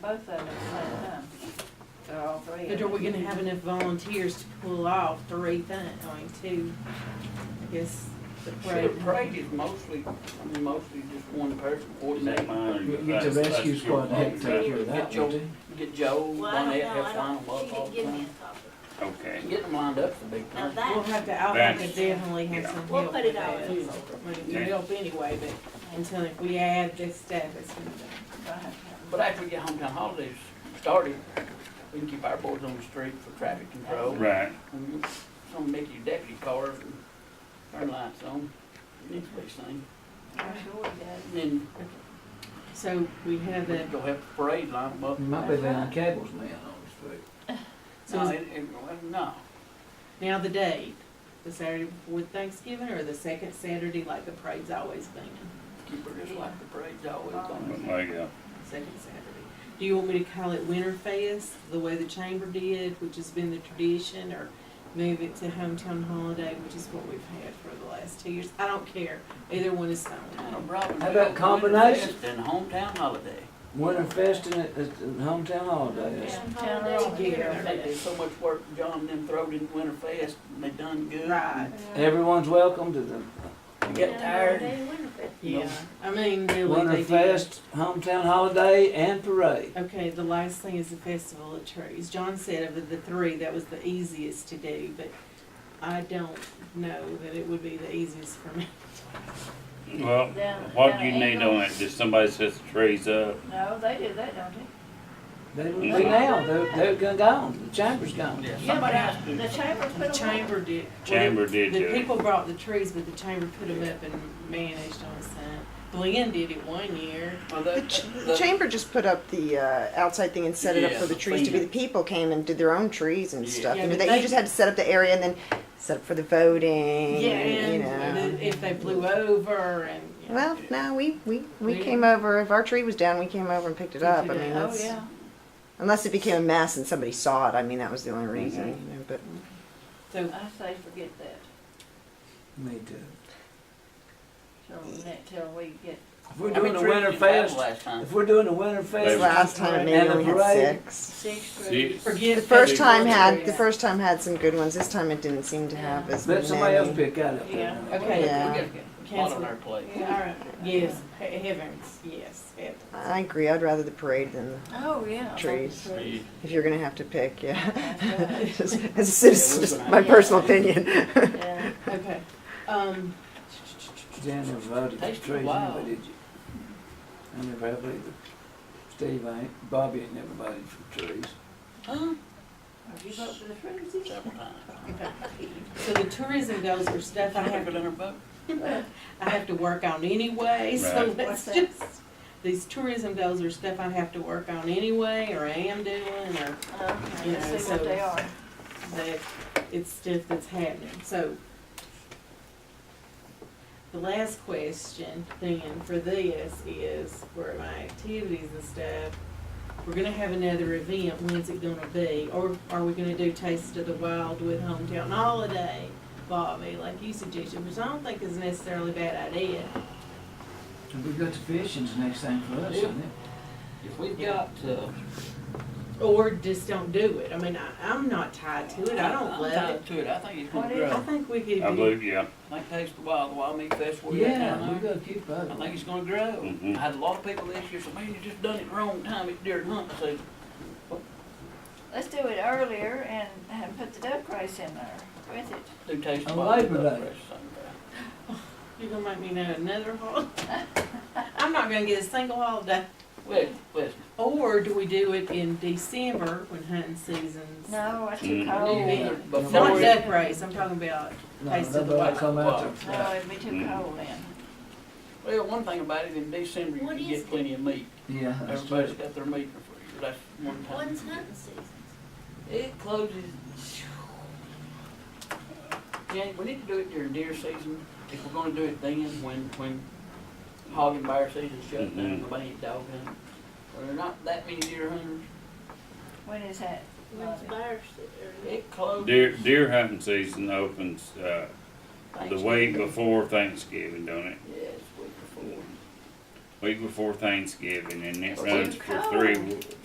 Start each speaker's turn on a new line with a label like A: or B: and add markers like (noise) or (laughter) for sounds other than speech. A: both of them at the same time, or all three of
B: But are
A: them.
B: we gonna have enough volunteers to pull off three things, I mean, two, I guess, the
C: Sure,
B: parade?
C: parade is mostly, I mean, mostly just one person
D: Is that
C: coordinating.
D: mine?
E: You get the rescue squad to help take care of that, wouldn't you?
C: Get Joe,
F: Well, I don't
C: Bonnet,
F: know,
C: have
F: I
C: fun,
F: don't, she
C: love all
F: didn't
C: the
F: give me
C: time.
F: a copy.
D: Okay.
C: Getting them lined up's the big
F: Now
C: thing.
B: We'll
F: that,
B: have to, I'll have to
D: That's-
B: definitely have
D: yeah.
B: some help.
F: We'll put
B: with
F: it all
B: that.
F: in.
B: I mean, you help anyway, but until if we add this stuff, it's gonna be.
C: But after we get hometown holidays started, we can keep our boys on the street for traffic control.
D: Right.
C: And you- Some make your deputy cars and turn lights on, next week's thing.
A: I'm sure we did.
C: And then
B: So we have
C: we
B: that,
C: can go have the parade line 'em up.
E: You might be laying cables now on the street.
B: so
C: No,
B: is
C: it, it, well, no,
B: Now the date, the Saturday before Thanksgiving or the second Saturday like the parade's always been,
C: keep her just like the parade's always
D: But
C: going.
D: like, uh,
B: second Saturday. Do you want me to call it Winterfest, the way the chamber did, which has been the tradition, or move it to hometown holiday, which is what we've had for the last two years? I don't care, either one is
C: Kind
B: fine.
C: of Robin
E: How
C: Hood
E: about
C: Winterfest
E: combination?
C: And hometown holiday.
E: Winter fest and it- it's a hometown holiday. It's-
C: They did so much work, John, them throwed in Winterfest, and they done good.
B: Right,
E: Everyone's welcome to the
C: They got tired.
B: yeah, I mean, really, they
E: Winter
B: did.
E: fest, hometown holiday and parade.
B: Okay, the last thing is the Festival of Trees. John said of the three, that was the easiest to do, but I don't know that it would be the easiest for me.
D: well,
A: Down-
D: what
A: down
D: do you
A: at
D: need on it?
A: Eagles.
D: Just somebody sets the trees up?
A: No, they do that, don't they?
E: They will be now, they're, they're gone- gone, the chamber's gone.
C: Yeah,
A: Yeah, but
C: somebody else do
A: The
C: something.
A: chamber put
B: The
A: them up.
B: chamber did.
D: Chamber did
B: The
D: do it.
B: people brought the trees, but the chamber put them up and managed on its own. Glenn did it one year.
C: Well, they-
G: The, ch- the
C: they-
G: chamber just put up the uh, outside thing and set it up
C: Yeah,
G: for the
C: the
G: trees to be.
C: thing.
G: The people came and did their own trees and
C: Yeah.
G: stuff.
B: Yeah,
G: you, know,
B: but
G: that,
B: they-
G: you just had to set up the area and then set up for the voting.
B: Yeah,
G: and, you know.
B: and the- if they blew over and. you know.
G: well, no, we we, we
B: Yeah.
G: came over. If our tree was down, we came over and picked it
B: Picked
G: up.
B: it
G: I
B: up.
G: mean,
A: Oh,
G: that's,
A: yeah.
G: unless it became a mess and somebody saw it. I mean, that was the only reason. You know, but
B: So
A: I say forget that,
E: Me too.
A: till, ne- till we get,
E: If we're
C: How many
E: doing a
C: trees
E: winter
C: did you have
E: fest,
C: Last time.
E: if we're doing a winter
D: They-
E: fest.
G: last time it
E: And
G: maybe
E: a
G: only
E: parade.
G: had six.
A: six
D: See,
A: trees.
B: forget.
G: The first
D: Six.
G: time
B: festival of
G: had
B: trees.
G: the first time had some good ones. This time it didn't seem to have as
E: Let
G: many.
E: somebody else pick that up.
A: Yeah.
B: Okay.
G: Yeah.
C: We got a lot on our plate.
B: All right, yes, he- heavens, yes, heavens.
G: I agree. I'd rather the parade than the
A: Oh, yeah. I love the
G: Trees.
C: Yeah.
G: If you're gonna have to pick,
A: That's
G: yeah. (laughs)
A: right.
G: Just- As a citizen, just my personal opinion.
A: Yeah.
D: (laughs)
B: Okay, um,
E: Jan never voted for
C: Takes a
E: trees
C: while.
E: anyway, did you? I never have either. Steve ain't, Bobby ain't never voted for trees.
C: Huh?
A: Have you voted for the trees? yet?
C: Several times.
B: so the tourism goes for stuff I have,
C: it in her book.
B: I have to work on anyway, so
D: Right.
B: (laughs) let's
A: What's that?
B: just, these tourism goals are stuff I have to work on anyway, or I am doing, or
A: Okay,
B: You know,
A: let's see
B: so-
A: what they are.
B: that, it's stuff that's happening, so. The last question then for this is, where my activities and stuff, we're gonna have another event, when's it gonna be? Or are we gonna do Taste of the Wild with Hometown Holiday, Bobby, like you suggested, which I don't think is necessarily a bad idea.
E: And we got the fishing's the next thing for us, isn't it?
C: If we've got, uh.
B: Or just don't do it, I mean, I, I'm not tied to it, I don't
C: I'm
B: love
C: tied
B: it.
C: To it, I think it's
A: What
C: gonna
A: is
B: I
C: grow.
B: think we could.
D: I believe, yeah.
C: Like Taste the Wild, the Wild Meat Festival. we got
E: Yeah,
C: down
E: we
C: there.
E: gotta keep up.
C: I think it's gonna grow. I
D: Mhm.
C: had a lot of people this year say, man, you just done it wrong time, it's during hunting season.
A: Let's do it earlier and, and put the duck race in there with it.
C: Do Taste the
E: On
C: Wild.
E: Oh, Labor
C: but
E: Day.
C: it's Sunday.
B: You're gonna make me know another holiday. (laughs) I'm not gonna get a single holiday.
C: Well, listen,
B: Or do we do it in December when hunting season's?
A: No, that's too
D: Mm.
F: Oh,
A: cold.
C: either
B: Not
C: before
B: Not
C: it,
B: duck race, I'm talking about,
E: No,
B: Taste of the
E: nobody
B: Wild.
E: come out there.
A: No, it'd be too
D: Mm.
A: cold then.
C: well, one thing about it, in December,
F: What
C: you
F: is
C: get
F: it?
C: plenty of meat.
E: Yeah, that's
C: Everybody's
E: true.
C: got their meat in the freezer, that's one time.
F: When's hunting season?
C: It closes. Jan, we need to do it during deer season, if we're gonna do it then, when, when hog and bear season's shut
D: Mhm.
E: Mm-hmm.
C: down, nobody ain't dog hunting. Well, There are not that many deer hunters,
A: When is that?
F: When's
A: Bobby?
F: bear season?
C: it closes.
D: Deer, deer hunting season opens, uh, the week before Thanksgiving, don't it?
C: Yes, week before.
D: Week before Thanksgiving and it
A: It's
D: runs
A: too
D: for three,
A: cold.
D: w-